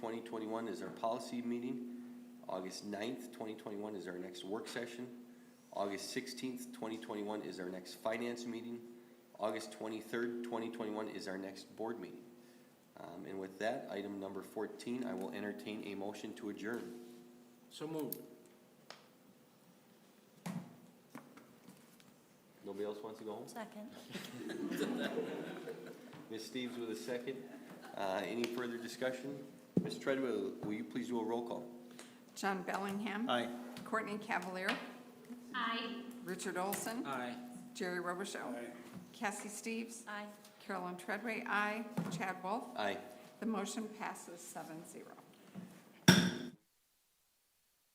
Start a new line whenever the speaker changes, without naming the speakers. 2021 is our policy meeting. August 9th, 2021 is our next work session. August 16th, 2021 is our next finance meeting. August 23rd, 2021 is our next board meeting. Um, And with that, item number 14, I will entertain a motion to adjourn.
So moved.
Nobody else wants to go home?
Second.
Ms. Steves with a second. Uh, Any further discussion? Ms. Treadwell, will you please do a roll call?
John Bellingham.
Aye.
Courtney Cavalier.
Aye.
Richard Olson.
Aye.
Jerry Robichaud. Cassie Steves.
Aye.
Carolyn Treadway, aye. Chad Wolf.
Aye.
The motion passes seven zero.